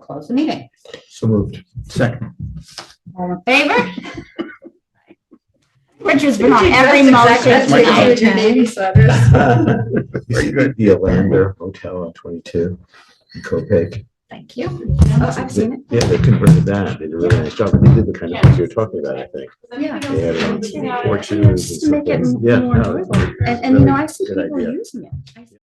close the meeting. So moved. Second. All in favor? Richard's been on every motion what you tonight. Very good. The Alander Hotel on twenty-two in Copac. Thank you. Oh, I've seen it. Yeah, they converted that. They did a really nice job. They did the kind of things you were talking about, I think. Yeah. They had um, Yeah. porches and Just to make it something. Yeah, more no, it was And, and you know, I see Good people idea. using it. I see